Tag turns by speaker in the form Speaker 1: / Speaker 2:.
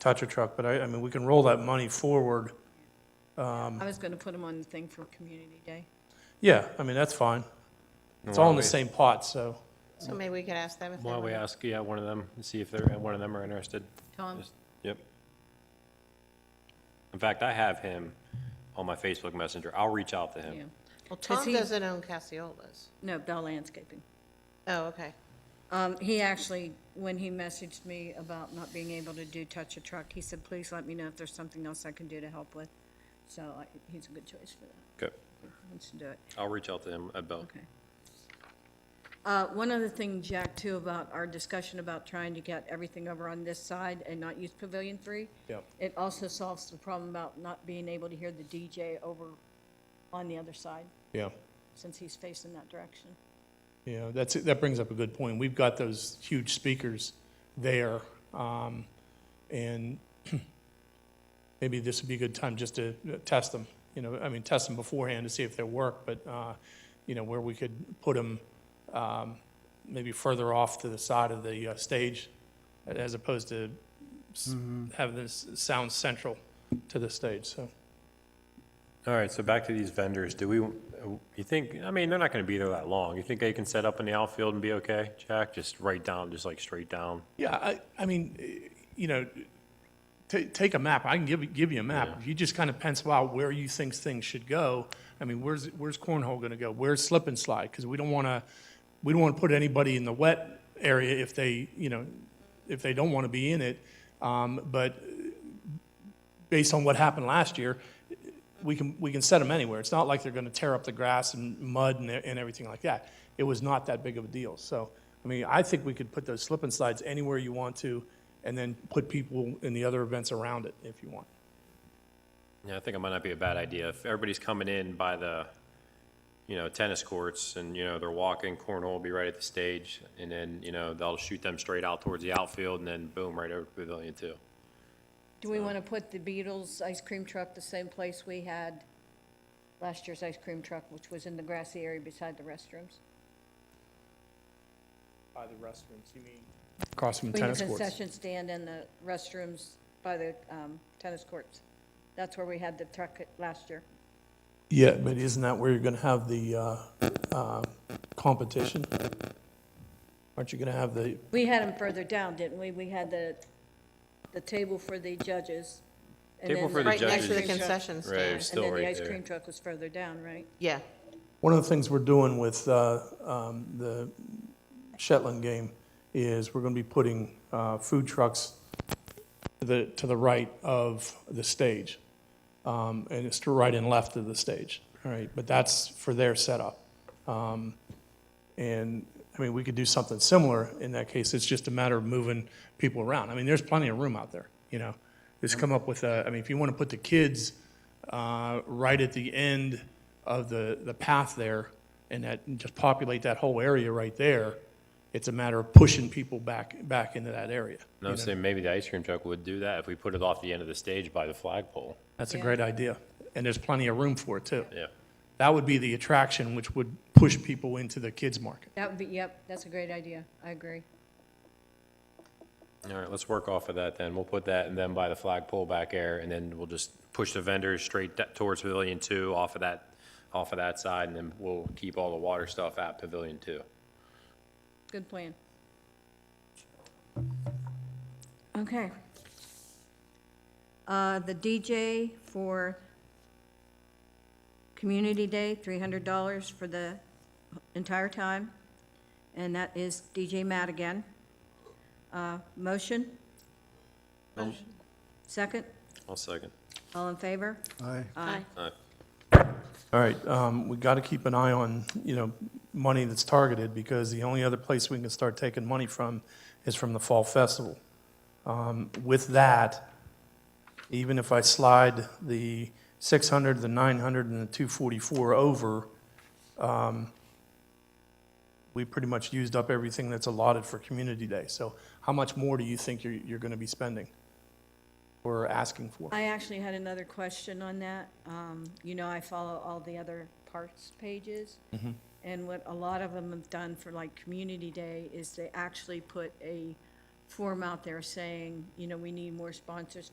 Speaker 1: Tatcha truck, but I, I mean, we can roll that money forward.
Speaker 2: I was gonna put them on the thing for Community Day.
Speaker 1: Yeah, I mean, that's fine. It's all in the same pot, so.
Speaker 3: So maybe we could ask them if they
Speaker 4: Why don't we
Speaker 3: want.
Speaker 4: ask, yeah, one of them, and see if they're, one of them are interested.
Speaker 2: Tom,
Speaker 4: Just- Yep. In fact, I have him on my Facebook Messenger. I'll reach out to
Speaker 2: yeah,
Speaker 4: him.
Speaker 3: Well,
Speaker 2: Does
Speaker 3: Tom
Speaker 2: he-
Speaker 3: doesn't own Cassiolas.
Speaker 2: no, Bell Landscaping.
Speaker 3: Oh, okay.
Speaker 2: Um, he actually, when he messaged me about not being able to do touch a truck, he said, please let me know if there's something else I can do to help with. So I, he's a good choice for that,
Speaker 4: Good.
Speaker 2: if he wants to do it.
Speaker 4: I'll reach out to him about,
Speaker 2: Okay. Uh, One other thing, Jack, too, about our discussion about trying to get everything over on this side and not use Pavilion Three.
Speaker 1: Yep.
Speaker 2: It also solves the problem about not being able to hear the DJ over on the other side,
Speaker 1: Yeah.
Speaker 2: since he's facing that direction.
Speaker 1: Yeah, that's, that brings up a good point. We've got those huge speakers there, um, and maybe this would be a good time just to uh, test them, you know, I mean, test them beforehand to see if they work, but, uh, you know, where we could put them, um, maybe further off to the side of the, uh, stage, as opposed to s- have this sound central to the stage, so.
Speaker 4: all right, so back to these vendors. Do we, you think, I mean, they're not going to be there that long. You think they can set up in the outfield and be okay, Jack? Just right down, just like straight down?
Speaker 1: Yeah, I, I mean, eh, you know, ta- take a map. I can give, you- give you a map. If you just kind of pencil out where you think things should go, I mean, where's, where's cornhole gonna go? Where's slip and slide? Because we don't want to, we don't want to put anybody in the wet area if they, you know, if they don't want to be in it. Um, but eh, based on what happened last year, eh, we can, we can set them anywhere. It's not like they're gonna tear up the grass and mud and, e, and everything like that. It was not that big of a deal. So, I mean, I think we could put those slip and slides anywhere you want to, and then put people in the other events around it if you want.
Speaker 4: Yeah, I think it might not be a bad idea. If everybody's coming in by the, you know, tennis courts and, you know, they're walking, cornhole will be right at the stage. And then, you know, they'll shoot them straight out towards the outfield and then boom, right over to Pavilion Two.
Speaker 2: Do we want to put the Beatles ice cream truck the same place we had last year's ice cream truck, which was in the grassy area beside the restrooms?
Speaker 1: By the restrooms, you mean? Across from
Speaker 2: Between
Speaker 1: tennis
Speaker 2: the
Speaker 1: courts.
Speaker 2: concession stand and the restrooms by the um, tennis courts. That's where we had the truck at- last year.
Speaker 1: Yeah, but isn't that where you're gonna have the, uh, uh, competition? Aren't you gonna have the,
Speaker 2: We had them further down, didn't we? We had the, the table for the judges. and
Speaker 4: Table
Speaker 2: then
Speaker 4: for the
Speaker 3: Right next to the
Speaker 4: judges.
Speaker 3: concession
Speaker 4: Right.
Speaker 3: stand.
Speaker 2: And
Speaker 4: Still
Speaker 2: then the
Speaker 4: right
Speaker 2: ice
Speaker 4: there.
Speaker 2: cream truck was further down, right?
Speaker 3: Yeah,
Speaker 1: One of the things we're doing with uh, um, the Shetland game is we're going to be putting uh, food trucks to the, to the right of the stage, Um, and it's to right and left of the stage, all right? But that's for their setup. Um, And, I mean, we could do something similar in that case, it's just a matter of moving people around. I mean, there's plenty of room out there, you know? Just come up with, a- I mean, if you want to put the kids uh, right at the end of the, the path there, and that, and just populate that whole area right there, it's a matter of pushing people back, back into that area.
Speaker 4: And I'm saying maybe the ice cream truck would do that if we put it off the end of the stage by the flagpole.
Speaker 1: That's a great idea, and there's plenty of room for it, too.
Speaker 4: Yeah.
Speaker 1: That would be the attraction, which would push people into the kids' market.
Speaker 2: That would be, yep, that's a great idea. I agree.
Speaker 4: All right, let's work off of that then. We'll put that and then by the flagpole back there and then we'll just push the vendors straight da- towards Pavilion Two off of that, off of that side and then we'll keep all the water stuff at Pavilion Two.
Speaker 2: Good plan. Okay. Uh, the DJ for Community Day, three hundred dollars for the entire time, and that is DJ Matt again. Uh, motion? Second?
Speaker 4: I'll second.
Speaker 2: All in favor?
Speaker 5: Aye.
Speaker 4: All right.
Speaker 1: All right, um, we got to keep an eye on, you know, money that's targeted, because the only other place we can start taking money from is from the Fall Festival. Um, With that, even if I slide the 600, the 900, and the 244 over, um, we pretty much used up everything that's allotted for Community Day. So how much more do you think you're, you're going to be spending or asking for?
Speaker 2: I actually had another question on that. Um, You know, I follow all the other parks pages. And what a lot of them have done for like Community Day is they actually put a form out there saying, you know, we need more sponsors